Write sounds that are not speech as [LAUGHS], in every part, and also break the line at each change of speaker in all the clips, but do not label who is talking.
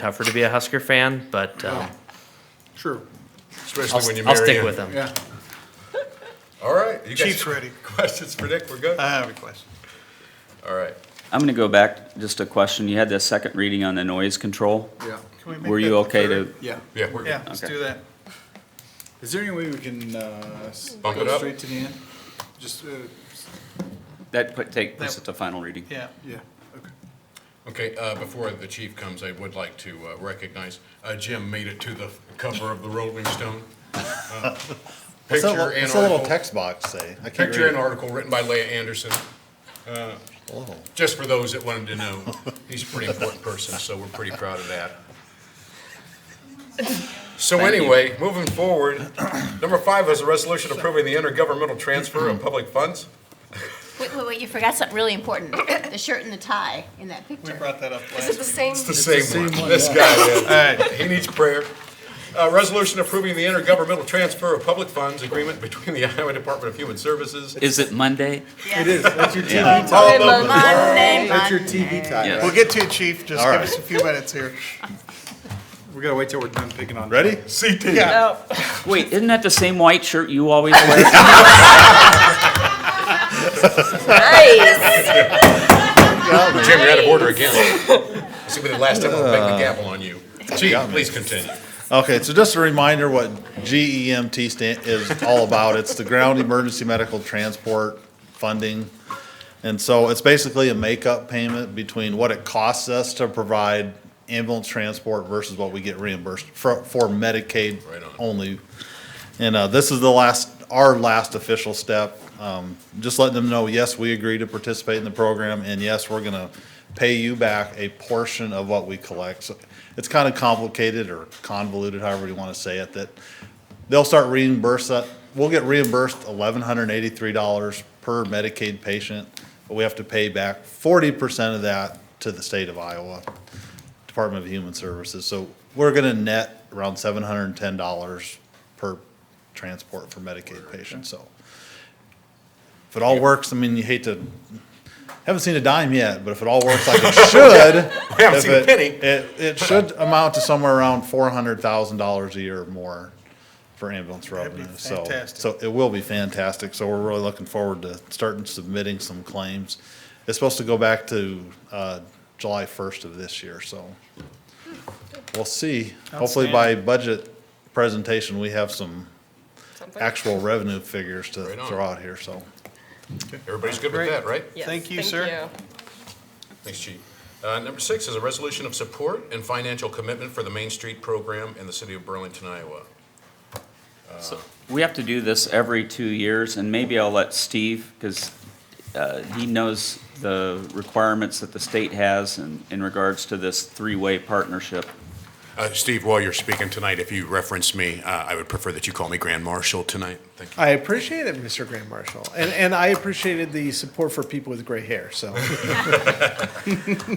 tougher to be a Husker fan, but uh,
Sure,
I'll,
especially when you
I'll
marry
stick
in.
with them.
Oh, yeah.
All right. You guys-
Chief's ready.
[LAUGHS]
Uh,
Questions for Nick? We're good?
I have a question.
All right.
I'm going to go back, just a question. You had the second reading on the noise control.
Yeah.
Can we make
Were
that
you
the
okay
third?
to,
Yeah.
Yeah, we're
Yeah,
good.
let's
Okay.
do that.
Is there any way we can, uh, s-
Bump it
go
up?
straight to the end? Just, uh, s-
that put, take, this
That-
at the final reading?
Yeah.
yeah, okay.
Okay, uh, before the chief comes, I would like to uh, recognize, uh, Jim made it to the cover of the Rolling Stone. Uh,
What's that,
Picture
li-
and
what's that little
article,
text box say? I can't
picture
read
and
it.
article written by Leah Anderson, Uh,
Oh.
just for those that wanted to know.
[LAUGHS]
He's a pretty important person, so we're pretty proud of that. So anyway, moving forward, number five is a resolution approving the intergovernmental transfer of public funds.
Wait, wait, wait, you forgot something really important, [COUGHS] the shirt and the tie in that
We
picture.
brought that up
Is it
last.
the same?
It's the same one. This guy,
All
yeah. he needs prayer. Uh, resolution approving the intergovernmental transfer of public funds agreement between the Iowa Department of Human Services.
Is it Monday?
It is, that's your TV time.
All of them.
Monday,
That's your
Monday.
TV time.
Yes.
We'll get to it, chief. Just
All
give
right.
us a few minutes here.
We gotta wait till we're done picking on.
Ready?
CT.
Wait, isn't that the same white shirt you always wear?
Jim, you're out of order [LAUGHS] again. This will be the last time I'll bang the gavel on you. Chief, please continue.
Okay, so just a reminder what GEMT stand, is all about. It's the Ground Emergency Medical Transport Funding. And so it's basically a makeup payment between what it costs us to provide ambulance transport versus what we get reimbursed for, for Medicaid
Right on.
only. And, uh, this is the last, our last official step. Um, just letting them know, yes, we agree to participate in the program and yes, we're gonna pay you back a portion of what we collect. So It's kind of complicated or convoluted, however you want to say it, that they'll start reimburse that, we'll get reimbursed eleven hundred and eighty-three dollars per Medicaid patient, but we have to pay back forty percent of that to the state of Iowa, Department of Human Services. So we're gonna net around seven hundred and ten dollars per transport for Medicaid patients, so. If it all works, I mean, you hate to, haven't seen a dime yet, but if it all
[LAUGHS]
works like it should.
We haven't
if
seen a
it-
penny.
It, it should amount to somewhere around four hundred thousand dollars a year or more for ambulance
be
revenue, so.
fantastic.
So it will be fantastic, so we're really looking forward to starting submitting some claims. It's supposed to go back to, uh, July first of this year, so. We'll see. Hopefully by budget presentation, we have some
Something?
actual revenue figures to
Right on.
throw out here, so.
Everybody's good with
Great.
that, right?
Yes,
Thank you, sir.
Thanks, Chief. Uh, Number six is a resolution of support and financial commitment for the Main Street program in the city of Burlington, Iowa.
We have to do this every two years, and maybe I'll let Steve, because he knows the requirements that the state has in, in regards to this three-way partnership.
Uh, Steve, while you're speaking tonight, if you reference me, uh, I would prefer that you call me Grand Marshal tonight. Thank you.
I appreciate it, Mr. Grand Marshal, and and I appreciated the support for people with gray hair.
[LAUGHS]
So,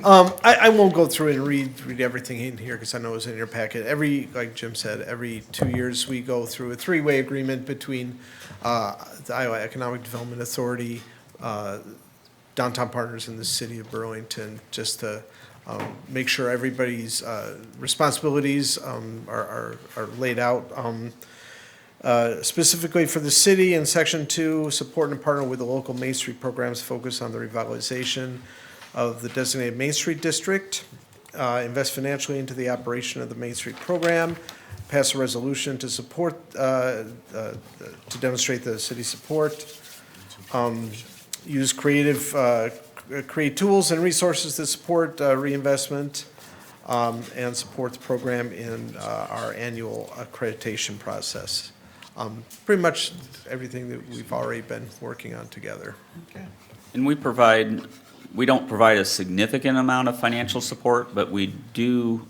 um, I, I won't go through and read read everything in here because I know it was in your packet. Every like Jim said, every two years we go through a three way agreement between uh, the Iowa Economic Development Authority, uh, downtown partners in the city of Burlington, just to um, make sure everybody's uh, responsibilities um, are, are are laid out. Um, uh, specifically for the city in section two, support and partner with the local Main Street programs focused on the revitalization of the designated Main Street district, uh, invest financially into the operation of the Main Street program, pass a resolution to support, uh, uh, to demonstrate the city's support, um, use creative, uh, c- create tools and resources to support uh, reinvestment, um, and support the program in uh, our annual accreditation process. Um, Pretty much everything that we've already been working on together.
And we provide, we don't provide a significant amount of financial support, but we do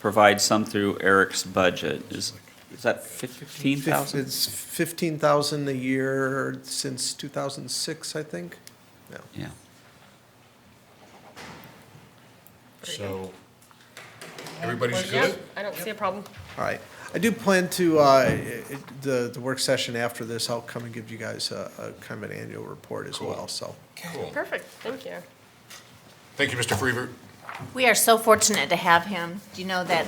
provide some through Eric's budget. Is, is that fifteen
Fif-
thousand?
It's 15,000 a year since 2006, I think. Yeah.
Yeah.
So, everybody's
Yeah,
good?
I don't see a problem.
All right. I do plan to, uh, it- it- the the work session after this, I'll come and give you guys a a kind of an annual report as well, so.
Cool.
Perfect, thank you.
Thank you, Mr. Freeburg.
We are so fortunate to have him. Do you know that